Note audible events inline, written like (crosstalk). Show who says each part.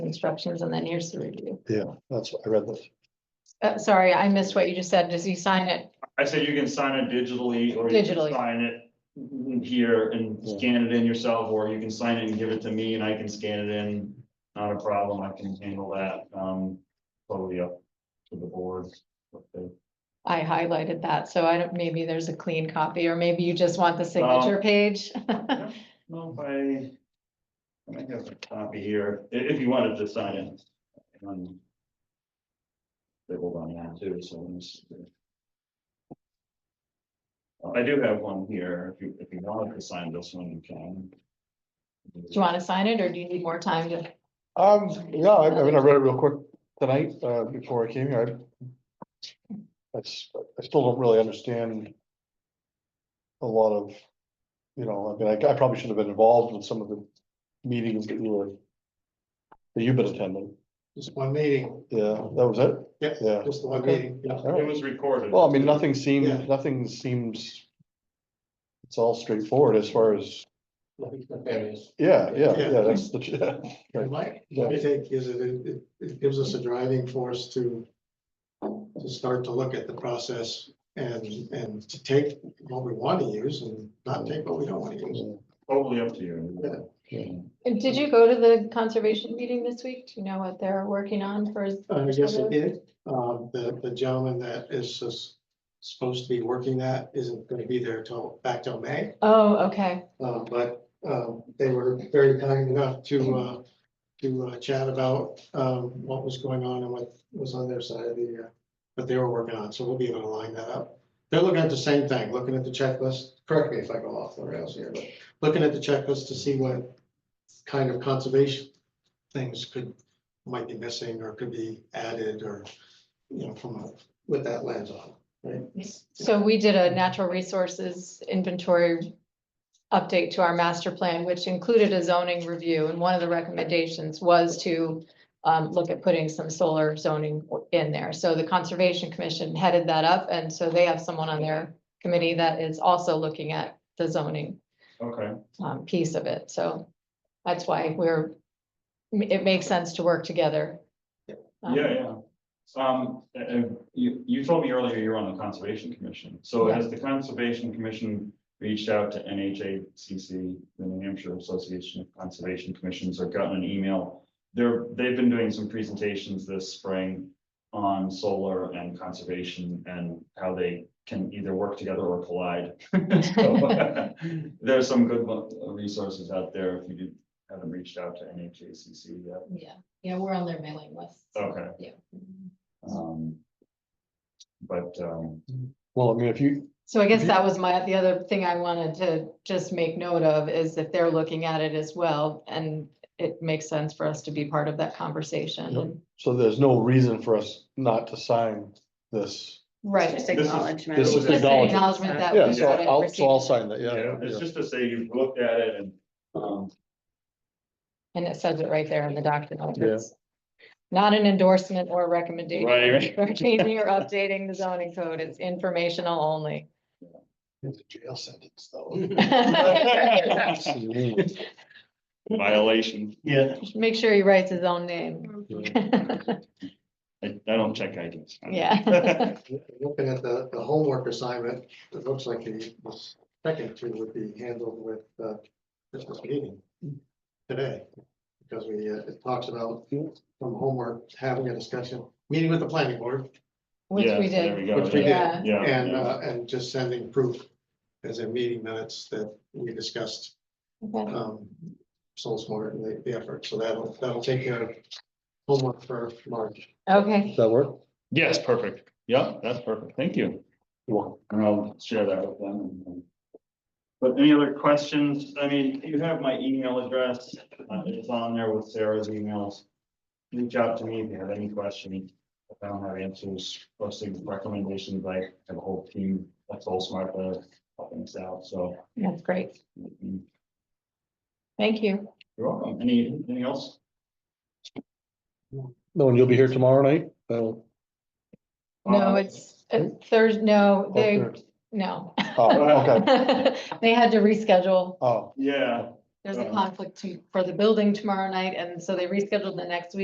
Speaker 1: instructions and then here's the review.
Speaker 2: Yeah, that's what I read this.
Speaker 1: Uh, sorry, I missed what you just said. Does he sign it?
Speaker 3: I said you can sign it digitally or you
Speaker 1: Digitally.
Speaker 3: can sign it n- here and
Speaker 2: Yeah.
Speaker 3: scan it in yourself, or you can sign it and give it to me and I can scan it in. Not a problem, I can handle that, um, totally up to the board. what they-
Speaker 1: I highlighted that, so I don't, maybe there's a clean copy, or maybe you just want the signature page.
Speaker 3: No, I, I might have a copy here, i- if you wanted to sign it. um, They hold on that too, so. let me see. Uh, I do have one here, if you, if you wanted to sign this one, you can.
Speaker 1: Do you want to sign it, or do you need more time to?
Speaker 2: Um, yeah, I I mean, I read it real quick tonight, uh, before I came here. I- I, s- I still don't really understand. A lot of, you know, I mean, I I probably should have been involved in some of the meetings that you were. That you've been attending.
Speaker 4: Just one meeting,
Speaker 2: Yeah, that was it?
Speaker 4: Yeah.
Speaker 2: Yeah.
Speaker 4: just the one
Speaker 2: Okay.
Speaker 4: meeting, yeah.
Speaker 2: All
Speaker 3: It
Speaker 2: right.
Speaker 3: was recorded.
Speaker 2: Well, I mean, nothing
Speaker 4: Yeah.
Speaker 2: seems, nothing seems. It's all straightforward as far as,
Speaker 4: Nothing's nefarious.
Speaker 2: yeah, yeah,
Speaker 4: Yeah.
Speaker 2: yeah, that's the, (laughs)
Speaker 4: And Mike,
Speaker 2: Yeah.
Speaker 4: what I think is it, it, it gives us a driving force to to start to look at the process and, and to take what we want to use and not take what we don't want to use.
Speaker 3: Totally up to you.
Speaker 4: Yeah.
Speaker 1: Did you go to the conservation meeting this week? Do you know what they're working on for?
Speaker 4: Uh, I guess it did. Um, the, the gentleman that is sus- supposed to be working that isn't gonna be there till, back till May.
Speaker 1: Oh, okay,
Speaker 4: Um, but, um, they were very kind enough to, uh, to uh, chat about, um, what was going on and what was on their side of the, uh, what they were working on, so we'll be able to line that up. They're looking at the same thing, looking at the checklist, correct me if I go off the rails here, but looking at the checklist to see what kind of conservation things could, might be missing or could be added or, you know, from, a- with that lens on, right?
Speaker 1: so we did a natural resources inventory update to our master plan, which included a zoning review, and one of the recommendations was to um, look at putting some solar zoning in there. So the Conservation Commission headed that up, and so they have someone on their committee that is also looking at the zoning
Speaker 3: Okay,
Speaker 1: um, piece of it, so that's why we're, it makes sense to work together. Um,
Speaker 3: yeah, yeah. Um, uh, uh, you, you told me earlier you were on the conservation commission, so
Speaker 1: Yeah.
Speaker 3: has the conservation commission reached out to NHACC, the New Hampshire Association of Conservation Commissions, or gotten an email? They're, they've been doing some presentations this spring on solar and conservation and how they can either work together or collide. (laughs) So, (laughs) There's some good uh, resources out there if you did- haven't reached out to NHACC yet.
Speaker 5: Yeah, yeah, we're on their mailing list.
Speaker 3: Okay.
Speaker 5: Yeah.
Speaker 3: Um. But, um,
Speaker 2: well, I mean, if you,
Speaker 1: So I guess
Speaker 2: Mhm.
Speaker 1: that was my, the other thing I wanted to just make note of is if they're looking at it as well, and it makes sense for us to be part of that
Speaker 2: Yep.
Speaker 1: conversation.
Speaker 2: so there's no reason for us not to sign this.
Speaker 1: Right.
Speaker 5: Just
Speaker 3: This is-
Speaker 5: acknowledgement.
Speaker 2: this is
Speaker 5: Just an
Speaker 2: acknowledgement.
Speaker 1: Acknowledgement that
Speaker 2: Yeah,
Speaker 1: we
Speaker 2: so
Speaker 1: got it
Speaker 2: I'll, so I'll
Speaker 1: received,
Speaker 2: sign that, yeah.
Speaker 3: yeah, it's just to say you've looked at it and, um,
Speaker 1: and it says it right there in the document.
Speaker 2: Yeah.
Speaker 1: It's Not an endorsement or recommendation.
Speaker 3: Right, (laughs) right.
Speaker 1: For changing or updating the zoning code, it's informational
Speaker 2: (laughs)
Speaker 1: only.
Speaker 2: It's a jail sentence, though. (laughs)
Speaker 3: violation.
Speaker 2: Yeah.
Speaker 1: Make sure he writes his own name.
Speaker 3: I, I don't check IDs. (laughs)
Speaker 1: Yeah.
Speaker 4: Looking at the, the homework assignment, it looks like the second two would be handled with, uh, this meeting today. Because we, uh, it talks about from homework, having a discussion, meeting with the planning board
Speaker 1: (laughs) Which
Speaker 3: Yeah,
Speaker 1: we
Speaker 3: there
Speaker 1: did.
Speaker 3: go,
Speaker 4: Which we
Speaker 3: yeah,
Speaker 4: did.
Speaker 1: Yeah,
Speaker 3: Yeah.
Speaker 4: and,
Speaker 3: yeah.
Speaker 4: uh, and just sending proof as a meeting minutes that we discussed,
Speaker 1: okay.
Speaker 4: um, Soul Smart and the, the effort. So that'll, that'll take care of homework for March.
Speaker 1: okay.
Speaker 2: Does that work?
Speaker 3: Yes, perfect. Yeah, that's perfect. Thank you.
Speaker 2: You're welcome.
Speaker 3: And I'll share that with them. and- and- But any other questions? I mean, you have my email address. Uh, It's on there with Sarah's emails. Reach out to me if you have any questions. If I don't have answers, posting recommendations, I have a whole team that's all smart, that helping us out, so.
Speaker 1: That's great.
Speaker 3: mm,
Speaker 1: Thank you.
Speaker 3: You're welcome. Any, anything else?
Speaker 2: No, and you'll be here tomorrow night? Oh,
Speaker 1: No,
Speaker 3: Uh,
Speaker 1: it's Thursday, no, they,
Speaker 2: okay.
Speaker 1: no.
Speaker 2: Oh, okay.
Speaker 1: (laughs) They had to reschedule.
Speaker 2: Oh.
Speaker 3: Yeah.
Speaker 1: There's a
Speaker 3: Uh-huh.
Speaker 1: conflict to- for the building tomorrow night, and so they rescheduled the next week.